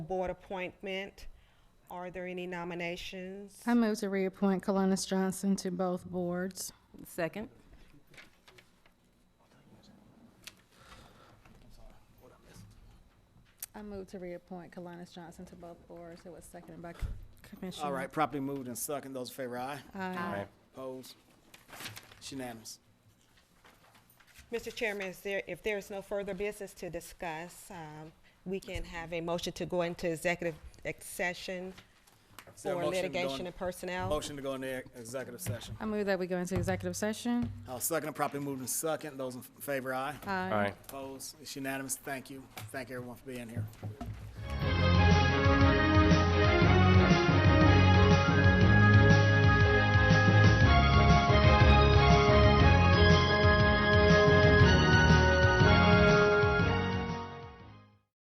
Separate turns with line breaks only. board appointment. Are there any nominations?
I move to reappoint Colonis Johnson to both boards.
Second.
I move to reappoint Colonis Johnson to both boards. It was seconded by Commissioner.
All right, properly moved and second. Those in favor, aye.
Aye.
Opposed? It's unanimous.
Mr. Chairman, is there, if there is no further business to discuss, um, we can have a motion to go into executive session
Is there a
for
motion to go in-
litigation and personnel.
Motion to go into executive session.
I move that we go into executive session.
I'll second it. Properly moved and second. Those in favor, aye.
Aye.
All right.
Opposed? It's unanimous. Thank you. Thank everyone for being here.